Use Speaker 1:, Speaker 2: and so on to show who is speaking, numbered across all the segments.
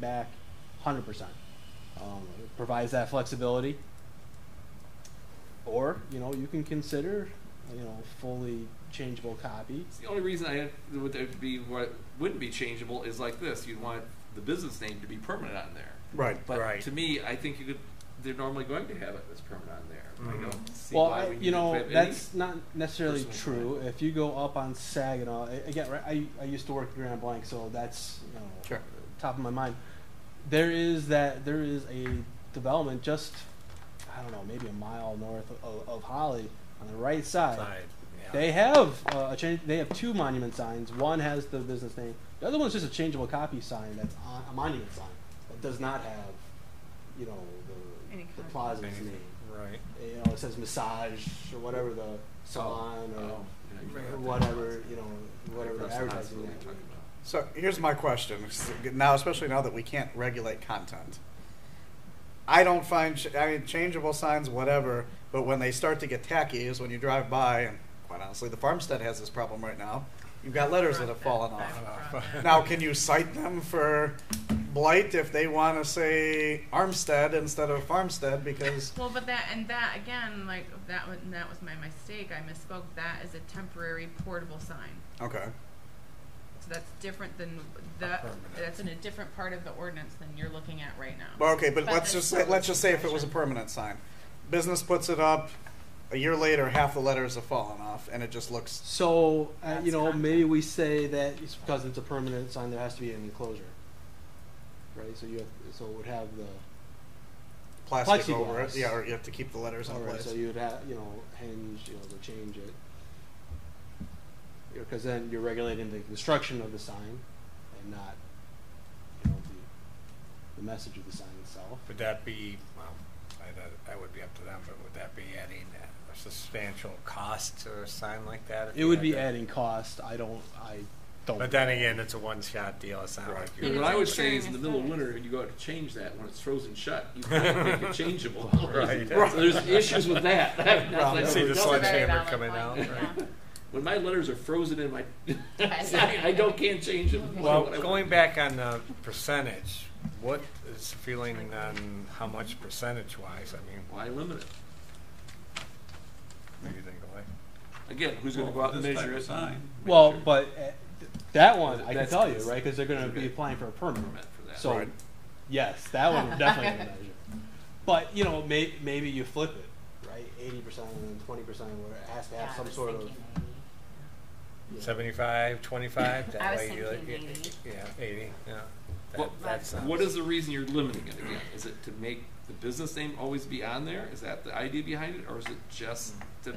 Speaker 1: back, hundred percent. Um, it provides that flexibility. Or you know you can consider you know fully changeable copy.
Speaker 2: The only reason I would there be what wouldn't be changeable is like this. You'd want the business name to be permanent on there.
Speaker 3: Right,
Speaker 2: But
Speaker 3: right.
Speaker 2: to me, I think you could. They're normally going to have it as permanent on there. I
Speaker 3: Mhm.
Speaker 2: don't see
Speaker 1: Well,
Speaker 2: why
Speaker 1: I,
Speaker 2: we
Speaker 1: you
Speaker 2: need to
Speaker 1: know
Speaker 2: have any-
Speaker 1: that's not necessarily
Speaker 2: personal
Speaker 1: true. If you go up on Saginaw a- again, right, I I used to work at Grand Blanc, so that's you know
Speaker 3: Sure.
Speaker 1: top of my mind. There is that there is a development just I don't know maybe a mile north of, of Holly on the right side.
Speaker 3: Side, yeah.
Speaker 1: They have uh, a change. They have two monument signs. One has the business name. The other one's just a changeable copy sign. That's on, a monument sign that does not have, you know,
Speaker 4: Any
Speaker 1: the, the
Speaker 4: kind.
Speaker 1: plaza's
Speaker 3: Anything.
Speaker 1: name.
Speaker 3: Right.
Speaker 1: You know, it says massage or whatever the salon or
Speaker 2: Oh, yeah, you
Speaker 1: or
Speaker 2: know,
Speaker 1: whatever you know whatever the
Speaker 2: that's not
Speaker 1: advertising.
Speaker 2: what
Speaker 1: name
Speaker 2: we're talking about.
Speaker 5: So here's my question now, especially now that we can't regulate content. I don't find ch- I mean changeable signs, whatever. But when they start to get tacky, is when you drive by, and quite honestly, the farmstead has this problem right now. You've got letters that have fallen off. Now, can you cite them for blight if they want to say Armstead instead of Farmstead because
Speaker 4: Well, but that and that again, like that was that was my mistake. I misspoke. That is a temporary portable sign.
Speaker 5: okay,
Speaker 4: So that's different than that.
Speaker 3: permanent.
Speaker 4: That's in a different part of the ordinance than you're looking at right now.
Speaker 5: well, okay, but,
Speaker 4: But
Speaker 5: let's
Speaker 4: there's
Speaker 5: just say,
Speaker 4: still
Speaker 5: let's just say if it was a
Speaker 4: discretion.
Speaker 5: permanent sign, business puts it up. A year later, half the letters have fallen off, and it just looks
Speaker 1: So uh, you
Speaker 4: That's
Speaker 1: know
Speaker 4: content.
Speaker 1: maybe we say that it's because it's a permanent sign. There has to be an enclosure, right? So you have, so it would have the
Speaker 5: plastic over
Speaker 1: Plexiglass.
Speaker 5: it. Yeah, or you have to keep the letters in
Speaker 1: All right,
Speaker 5: place.
Speaker 1: so you'd have, you know, hinge, you know, to change it. Because then you're regulating the construction of the sign and not, you know, the, the message of the sign itself.
Speaker 3: Would that be, well, I, that- that would be up to them, but would that be adding a substantial cost to a sign like that? if
Speaker 1: It
Speaker 3: you
Speaker 1: would
Speaker 3: had
Speaker 1: be
Speaker 3: to-
Speaker 1: adding cost, I don't, I don't.
Speaker 3: But then again, it's a one-shot deal, it's not like
Speaker 2: But
Speaker 3: you're.
Speaker 4: And
Speaker 2: what
Speaker 4: it's
Speaker 2: I would
Speaker 4: like
Speaker 2: say is, in
Speaker 4: sharing
Speaker 2: the
Speaker 4: a
Speaker 2: middle of
Speaker 4: size.
Speaker 2: winter, you go out to change that when it's frozen shut. You can't make it changeable.
Speaker 3: Right.
Speaker 2: So there's issues with that. That's
Speaker 5: Well,
Speaker 2: like-
Speaker 3: See the
Speaker 4: That's a very
Speaker 3: sledgehammer
Speaker 4: valid
Speaker 3: coming
Speaker 4: point,
Speaker 3: out,
Speaker 4: yeah.
Speaker 3: right?
Speaker 2: When my letters are frozen in my, I I don't can't change them.
Speaker 3: Well,
Speaker 2: What I
Speaker 3: going
Speaker 2: want.
Speaker 3: back on the percentage, what is the feeling on how much percentage-wise? I mean,
Speaker 2: Why limit it?
Speaker 3: what do you think, Clay?
Speaker 2: Again, who's going to go out and
Speaker 6: This
Speaker 2: measure
Speaker 6: type of
Speaker 2: it?
Speaker 6: sign.
Speaker 1: Well,
Speaker 2: Measure
Speaker 1: but uh, th- that one, I can
Speaker 2: That's-
Speaker 1: tell you, right, because they're gonna
Speaker 2: Okay.
Speaker 1: be applying for a permit.
Speaker 2: permit for that.
Speaker 1: So,
Speaker 5: Right.
Speaker 1: yes, that one we're definitely gonna measure. But, you know, may, maybe you flip it, right, eighty percent and then twenty percent, where it has to have some sort of. you know,
Speaker 3: Seventy-five, twenty-five,
Speaker 7: I
Speaker 3: that
Speaker 7: was
Speaker 3: way you,
Speaker 7: thinking
Speaker 3: you-
Speaker 7: eighty.
Speaker 3: yeah, eighty, yeah.
Speaker 2: Well,
Speaker 3: That- that sounds-
Speaker 2: What is the reason you're limiting it again? Is it to make the business name always be on there? Is that the idea behind it, or is it just to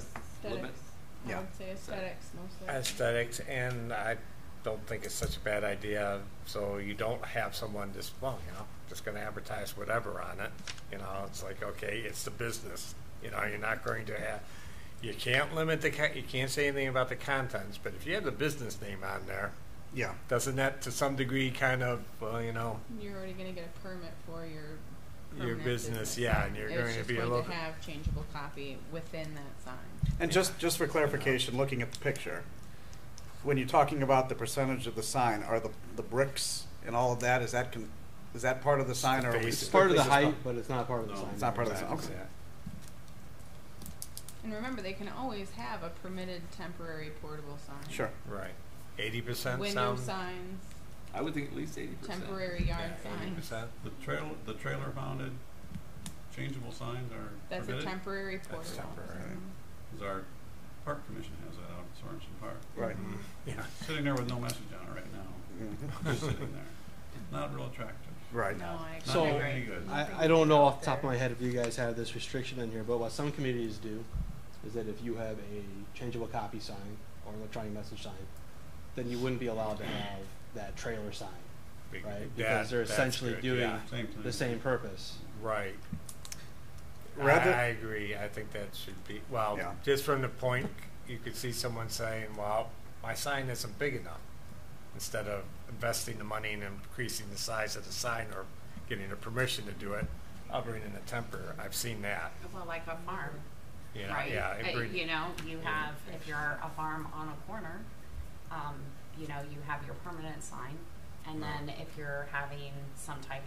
Speaker 2: limit?
Speaker 4: Aesthetics. I
Speaker 5: Yeah.
Speaker 4: would say aesthetics mostly.
Speaker 3: aesthetics, and I don't think it's such a bad idea. So you don't have someone just well, you know, just going to advertise whatever on it. You know, it's like okay, it's the business. You know, you're not going to have. You can't limit the. Con- you can't say anything about the contents, but if you have the business name on there,
Speaker 5: yeah.
Speaker 3: doesn't that to some degree kind of well, you know,
Speaker 4: You're already going to get a permit for your
Speaker 3: your
Speaker 4: permanent
Speaker 3: business, yeah, and you're
Speaker 4: It's
Speaker 3: going to
Speaker 4: just
Speaker 3: be a
Speaker 4: going
Speaker 3: little.
Speaker 4: to have changeable copy within that sign.
Speaker 5: And just just for clarification, looking at the picture, when you're talking about the percentage of the sign, are the the bricks and all of that is that con- is that part of the sign, or are we
Speaker 3: It's
Speaker 1: It's part of the
Speaker 5: strictly just talk-
Speaker 1: height, but it's not part of the
Speaker 6: No,
Speaker 1: sign.
Speaker 5: it's not part of the sign.
Speaker 3: Sometimes,
Speaker 5: Okay.
Speaker 3: yeah.
Speaker 4: And remember, they can always have a permitted temporary portable sign.
Speaker 5: Sure.
Speaker 3: Right. Eighty percent
Speaker 4: Window
Speaker 3: sound.
Speaker 4: signs,
Speaker 2: I would think at least eighty percent.
Speaker 4: temporary yard
Speaker 3: Eighty
Speaker 4: signs.
Speaker 3: percent.
Speaker 6: The trailer, the trailer mounted changeable signs are
Speaker 4: That's a
Speaker 6: permitted,
Speaker 4: temporary portable.
Speaker 3: That's temporary.
Speaker 4: sign.
Speaker 6: 'cause our park commission has that out at Sorensen Park.
Speaker 5: Right. Mm-hmm.
Speaker 3: Yeah.
Speaker 6: Sitting there with no message on it right now, just sitting there. Not real attractive.
Speaker 5: Right.
Speaker 4: No, I agree.
Speaker 6: Not
Speaker 1: So-
Speaker 6: doing any good.
Speaker 1: I, I don't know off the top of my head if you guys have this restriction in here, but what some communities do is that if you have a changeable copy sign or electronic message sign, then you wouldn't be allowed to have that trailer sign,
Speaker 3: Big-
Speaker 1: right?
Speaker 3: that-
Speaker 1: Because they're
Speaker 3: that's
Speaker 1: essentially
Speaker 3: good,
Speaker 1: doing
Speaker 3: yeah.
Speaker 6: Same thing.
Speaker 1: the same purpose.
Speaker 3: Right.
Speaker 5: Rather-
Speaker 3: I, I agree. I think that should be well,
Speaker 5: Yeah.
Speaker 3: just from the point you could see someone saying, "Well, my sign isn't big enough," instead of investing the money and increasing the size of the sign or getting a permission to do it. I'll bring in a temper. I've seen that.
Speaker 7: Well, like a farm,
Speaker 3: You know,
Speaker 7: right?
Speaker 3: Yeah. it
Speaker 7: Uh,
Speaker 3: bring-
Speaker 7: You know, you
Speaker 3: Yeah.
Speaker 7: have, if you're a farm on a corner, um, you know, you have your permanent sign, And then if you're having some type